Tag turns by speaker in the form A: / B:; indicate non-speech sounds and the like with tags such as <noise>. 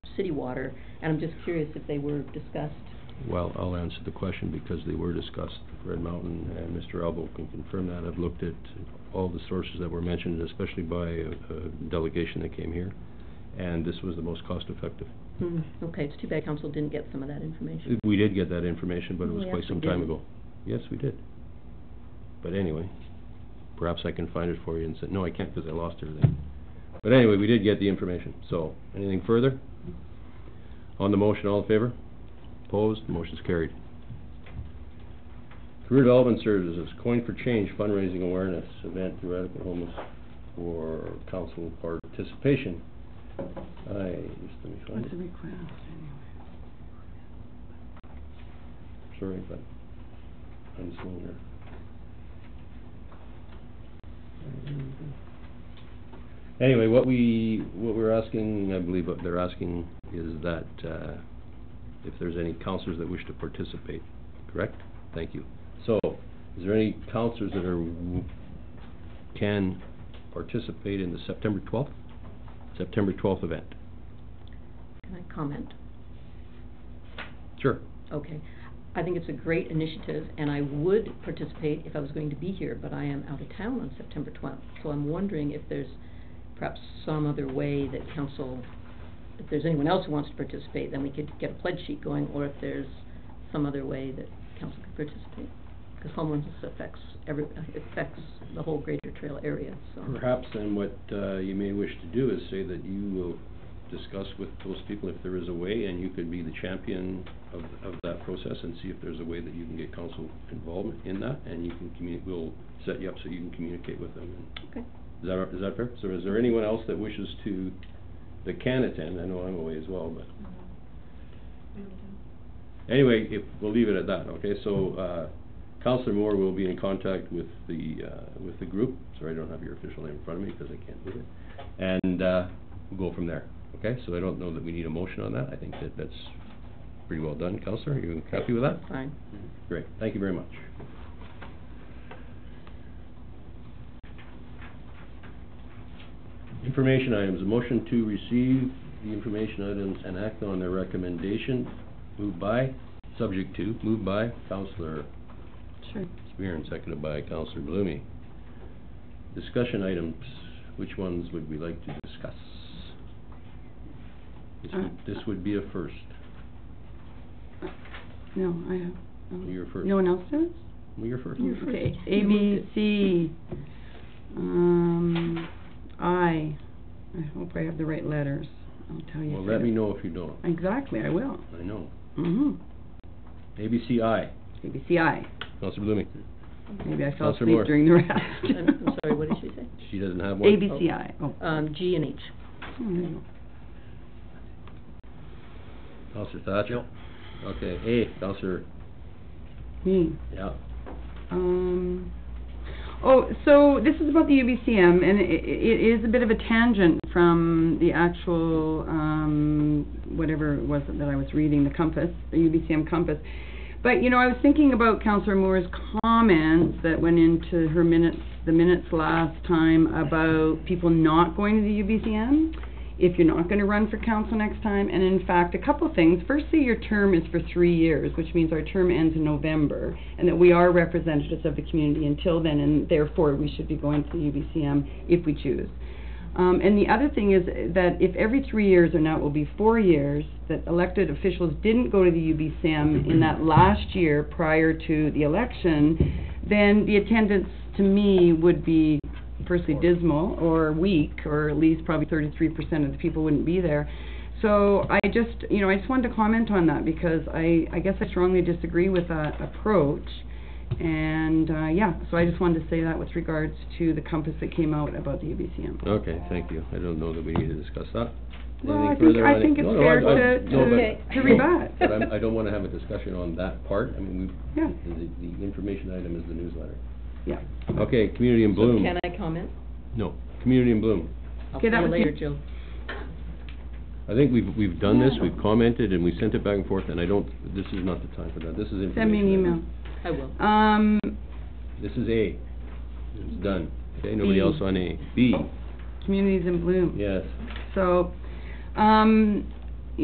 A: city water, and I'm just curious if they were discussed.
B: Well, I'll answer the question because they were discussed, Red Mountain, and Mr. Elbow can confirm that. I've looked at all the sources that were mentioned, especially by a a delegation that came here, and this was the most cost-effective.
A: Hmm, okay, it's too bad council didn't get some of that information.
B: We did get that information, but it was
A: We
B: quite some
A: actually
B: time
A: didn't.
B: ago. Yes, we did. But anyway, perhaps I can find it for you and say, no, I can't because I lost everything. But anyway, we did get the information, so, anything further? On the motion, all in favor? Opposed, motion's carried. Career Development Services, Coin for Change fundraising awareness event to eradicate homeless for council participation. I, just let me find
C: What's
B: it.
C: the request anyway?
B: Sorry, but I'm slow here. Anyway, what we, what we're asking, I believe what they're asking is that, uh, if there's any counselors that wish to participate, correct? Thank you. So, is there any counselors that are, w- can participate in the September twelfth? September twelfth event?
A: Can I comment?
B: Sure.
A: Okay. I think it's a great initiative, and I would participate if I was going to be here, but I am out of town on September twelfth. So I'm wondering if there's perhaps some other way that council, if there's anyone else who wants to participate, then we could get a pledge sheet going, or if there's some other way that council could participate. Because homelessness affects every, affects the whole greater trail area, so.
B: Perhaps then what uh, you may wish to do is say that you will discuss with those people if there is a way, and you could be the champion of, of that process and see if there's a way that you can get council involvement in that, and you can communi, we'll set you up so you can communicate with them.
A: Okay.
B: Is that, is that fair? So is there anyone else that wishes to, that can attend? I know I'm away as well, but anyway, if, we'll leave it at that, okay? So, uh, Counselor Moore will be in contact with the, uh, with the group. Sorry, I don't have your official name in front of me because I can't do it. And, uh, we'll go from there, okay? So I don't know that we need a motion on that. I think that that's pretty well done. Counselor, are you happy with that?
A: Fine.
B: Great, thank you very much. Information items, a motion to receive the information items and act on their recommendation, moved by, subject to, moved by Counselor
C: Sure.
B: Spear and seconded by Counselor Blumey. Discussion items, which ones would we like to discuss? This would, this would be a first,
C: No, I have. oh.
B: You're first.
C: No one else does?
B: well, you're
C: Oh,
B: first.
A: You're first.
C: Okay,
A: You
C: A,
A: moved
C: B,
A: it.
C: C, um, I, I hope I have the right letters. I'll tell you.
B: Well,
C: if
B: let
C: I-
B: me know if you don't,
C: Exactly, I will.
B: I know.
C: Mm-hmm.
B: ABCI.
C: A, B, C, I.
B: Counselor Blooming.
C: Maybe I fell
B: Counselor Moore.
C: asleep during the rest.
A: I'm <laughs> I'm sorry, what did she say?
B: She doesn't have <laughs> one.
C: A, B, C, I. Oh.
A: Um, G and H.
C: Oh, there you
B: Counselor Thatcher. Okay, A, Counselor,
C: go. Me.
B: yeah.
C: Um, oh, so this is about the UBCM, and i it is a bit of a tangent from the actual, um, whatever it was that I was reading, the compass, the UBCM compass. But, you know, I was thinking about Councillor Moore's comments that went into her minutes, the minutes last time about people not going to the UBCM, if you're not gonna run for council next time, and in fact, a couple things. Firstly, your term is for three years, which means our term ends in November, and that we are representatives of the community until then, and therefore, we should be going to the UBCM if we choose. Um, and the other thing is that if every three years, or now it will be four years, that elected officials didn't go to the UBCM in that last year prior to the election, then the attendance to me would be firstly dismal or weak, or at least probably thirty-three percent of the people wouldn't be there. So I just, you know, I just wanted to comment on that because I, I guess I strongly disagree with that approach. And, uh, yeah, so I just wanted to say that with regards to the compass that came out about the UBCM.
B: Okay, thank you. I don't know that we need to discuss that.
C: Well, I
B: Anything
C: think,
B: further on
C: I
B: it?
C: think it's
B: No, no,
C: fair
B: I- I-
C: to,
B: no, but-
A: Okay.
C: to, to
B: no,
C: rebut.
B: <laughs> But I'm, I don't wanna have a discussion on that part. I mean, we,
C: Yeah,
B: the, the information item is the newsletter.
C: yeah.
B: Okay, Community in Bloom.
A: So can I comment?
B: No, Community in Bloom.
A: I'll see
C: Okay, that
A: you
C: was
A: later,
C: it.
A: Jill.
B: I think we've, we've done this, we've commented, and we sent it back and forth, and I don't, this is not the time for that. This is information.
C: Send me an email.
B: item.
A: I will.
C: Um,
B: This is A. It's done. Okay, nobody
C: B.
B: else on A. B,
C: Communities in Bloom.
B: yes.
C: So, um,